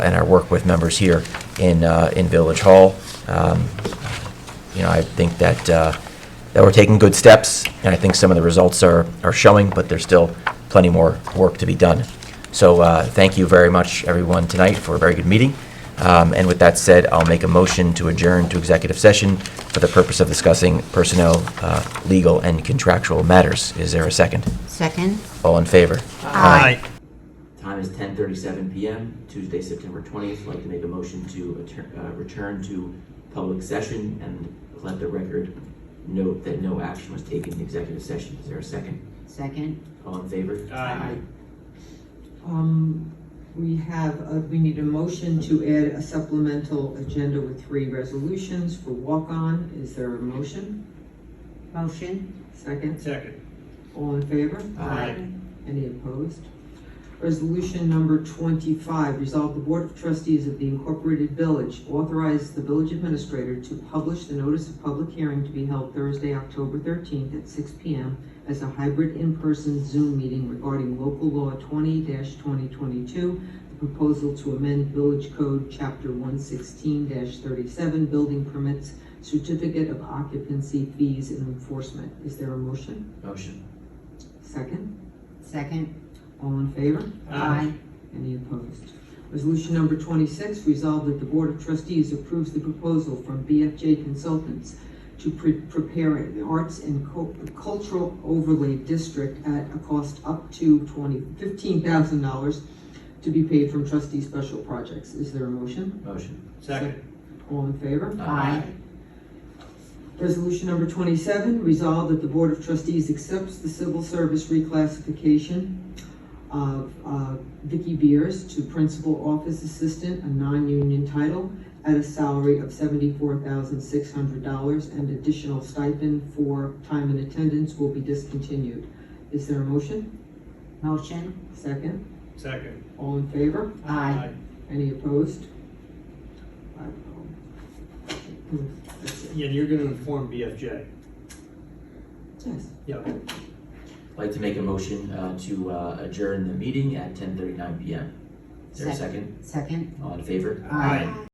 and our work with members here in, uh, in Village Hall. Um, You know, I think that, uh, that we're taking good steps, and I think some of the results are, are showing, but there's still plenty more work to be done. So uh, thank you very much, everyone, tonight for a very good meeting. Um, And with that said, I'll make a motion to adjourn to executive session for the purpose of discussing personnel, uh, legal, and contractual matters. Is there a second? Second? All in favor? Aye. Time is 10:37 PM, Tuesday, September 20th. I'd like to make a motion to atter- uh, return to public session and let the record note that no action was taken in executive session. Is there a second? Second? All in favor? Aye. Um, we have, uh, we need a motion to add a supplemental agenda with three resolutions for walk-on. Is there a motion? Motion? Second, Second. all in favor? Aye. Any opposed? Resolution number twenty-five, resolve the Board of Trustees of the Incorporated Village authorize the village administrator to publish the notice of public hearing to be held Thursday, October thirteenth at six P M as a hybrid in-person Zoom meeting regarding local law twenty twenty twenty-two, the proposal to amend Village Code, Chapter one sixteen thirty-seven, building permits, certificate of occupancy fees and enforcement. Is there a motion? Motion. Second, Second? all in favor? Any opposed? Resolution number twenty-six, resolved that the Board of Trustees approves the proposal from BFJ Consultants to pre- prepare an arts and cul- cultural overlay district at a cost up to twenty, fifteen thousand dollars to be paid from trustee special projects. Is there a motion? Motion. Second. All in favor? Aye. Resolution number twenty-seven, resolve that the Board of Trustees accepts the civil service reclassification of uh, Vicky Beers to Principal Office Assistant, a non-union title, at a salary of seventy-four thousand six hundred dollars, and additional stipend for time and attendance will be discontinued. Is there a motion? Motion? Second? Second. All in favor? Aye. Any opposed? oh. I will. Yeah, you're gonna inform BFJ. Yes. Yep. I'd like to make a motion uh, to uh, adjourn the meeting at 10:39 PM. Is there a second? Second? All in favor? Aye.